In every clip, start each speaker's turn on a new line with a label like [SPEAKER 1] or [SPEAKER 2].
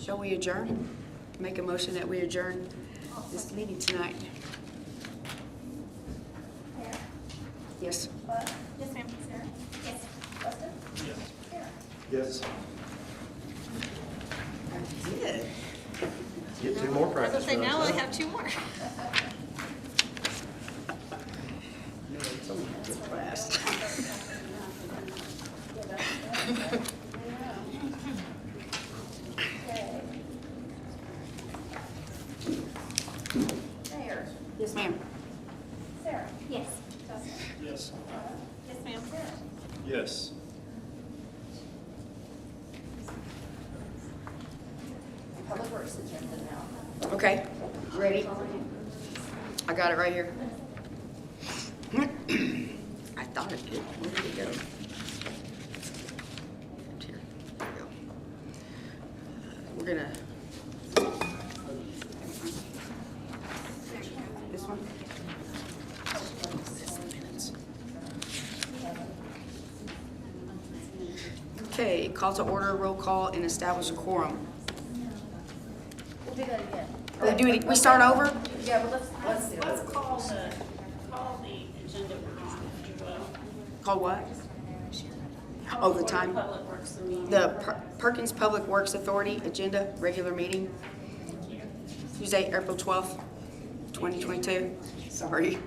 [SPEAKER 1] Shall we adjourn? Make a motion that we adjourn this meeting tonight.
[SPEAKER 2] Sarah?
[SPEAKER 1] Yes.
[SPEAKER 2] What? Yes, ma'am. Sarah? Yes. Justin? Yes. Sarah?
[SPEAKER 3] Yes.
[SPEAKER 1] Good.
[SPEAKER 3] Get two more
[SPEAKER 4] I was
[SPEAKER 3] practice
[SPEAKER 4] gonna say,
[SPEAKER 3] runs.
[SPEAKER 4] now I
[SPEAKER 3] huh?
[SPEAKER 4] have two more.
[SPEAKER 1] No, it's only half the class.
[SPEAKER 2] Sarah?
[SPEAKER 1] Yes, ma'am.
[SPEAKER 2] Sarah? Yes. Justin?
[SPEAKER 3] Yes.
[SPEAKER 4] Yes, ma'am.
[SPEAKER 2] Sarah?
[SPEAKER 3] Yes.
[SPEAKER 2] Public Works is in now.
[SPEAKER 1] Okay, ready? I got it right here. I thought it did. Where did it go? It's here. There we go. Uh, We're gonna. This one? Okay, call to order, roll call, and establish a quorum.
[SPEAKER 2] We'll do that again.
[SPEAKER 1] We do it, we start over?
[SPEAKER 2] Yeah, but let's, let's do
[SPEAKER 5] Let's call the, call the agenda on, if you will.
[SPEAKER 1] Call what? Oh, the time?
[SPEAKER 5] Call for Public Works meeting.
[SPEAKER 1] The Per- Perkins Public Works Authority Agenda Regular Meeting, Tuesday, April 12th, 2022. Sorry.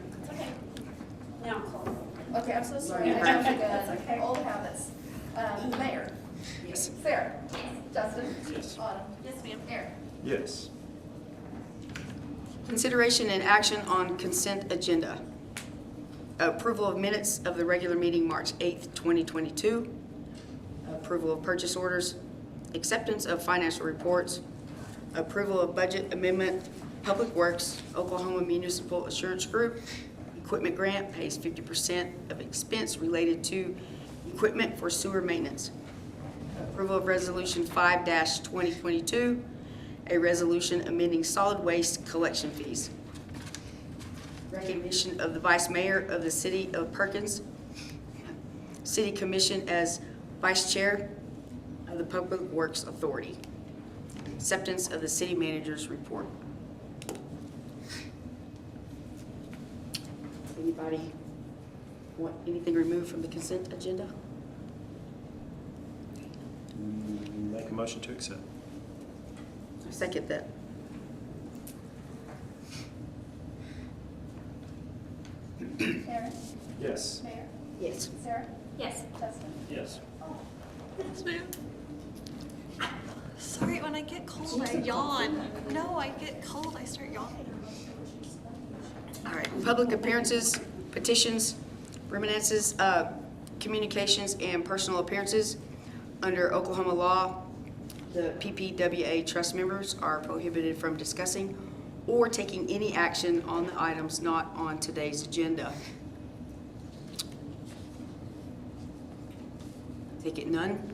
[SPEAKER 5] Now call.
[SPEAKER 2] Okay, I'm so sorry. I jumped the gun. Old habits. Um, Mayor?
[SPEAKER 1] Yes.
[SPEAKER 2] Sarah? Justin?
[SPEAKER 3] Yes.
[SPEAKER 2] Autumn?
[SPEAKER 4] Yes, ma'am.
[SPEAKER 2] Erin?
[SPEAKER 3] Yes.
[SPEAKER 1] Consideration and action on consent agenda. Approval of minutes of the regular meeting, March 8th, 2022. Approval of purchase orders, acceptance of financial reports, approval of budget amendment, Public Works, Oklahoma Municipal Assurance Group, equipment grant pays 50% of expense related to equipment for sewer maintenance. Approval of Resolution 5-2022, a resolution amending solid waste collection fees. Recognition of the Vice Mayor of the City of Perkins, City Commission as Vice Chair of the Public Works Authority. Acceptance of the City Manager's Report. Anybody want anything removed from the consent agenda?
[SPEAKER 3] Make a motion to accept.
[SPEAKER 1] I Second that.
[SPEAKER 2] Erin?
[SPEAKER 3] Yes.
[SPEAKER 2] Mayor?
[SPEAKER 1] Yes.
[SPEAKER 2] Sarah?
[SPEAKER 4] Yes.
[SPEAKER 2] Justin?
[SPEAKER 3] Yes.
[SPEAKER 4] Yes, ma'am. Sorry, when I get cold, I yawn. No, I get cold, I start yawning.
[SPEAKER 1] All right, public appearances, petitions, reminiscences, uh, communications, and personal appearances. Under Oklahoma law, the PPWA trust members are prohibited from discussing or taking any action on the items not on today's agenda. Take it none?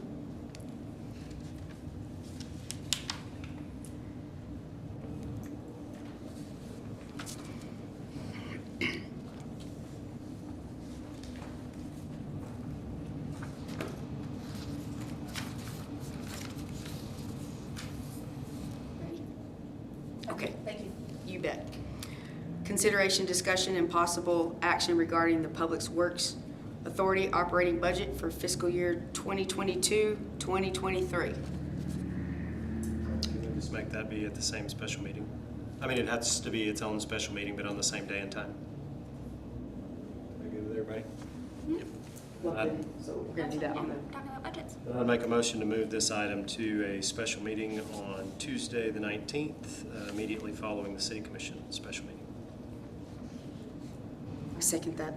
[SPEAKER 1] Okay.
[SPEAKER 2] Thank you.
[SPEAKER 1] You bet. Consideration, discussion, and possible action regarding the Public Works Authority operating budget for fiscal year 2022, 2023.
[SPEAKER 3] Can we Just make that be at the same special meeting. I mean, it has to be its own special meeting, but on the same day and time. Are you good with everybody? I'd-
[SPEAKER 1] So we're going to do that on the,
[SPEAKER 4] Talking about budgets.
[SPEAKER 3] I'd make a motion to move this item to a special meeting on Tuesday, the 19th, uh, immediately following the city commission special meeting.
[SPEAKER 1] I second that.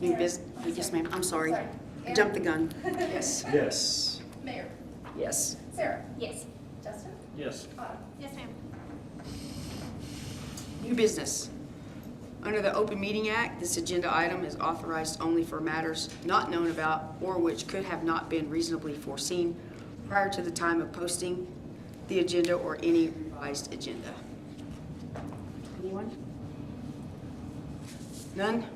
[SPEAKER 1] New bus, yes ma'am, I'm sorry.
[SPEAKER 2] Sorry.
[SPEAKER 1] I Jumped the gun. Yes,
[SPEAKER 3] Yes.
[SPEAKER 2] Mayor?
[SPEAKER 1] yes.
[SPEAKER 2] Sarah?
[SPEAKER 4] Yes.
[SPEAKER 2] Justin?
[SPEAKER 3] Yes.
[SPEAKER 2] Autumn?
[SPEAKER 4] Yes, ma'am.
[SPEAKER 1] New business. Under the Open Meeting Act, this agenda item is authorized only for matters not known about or which could have not been reasonably foreseen prior to the time of posting the agenda or any revised agenda. Anyone? None?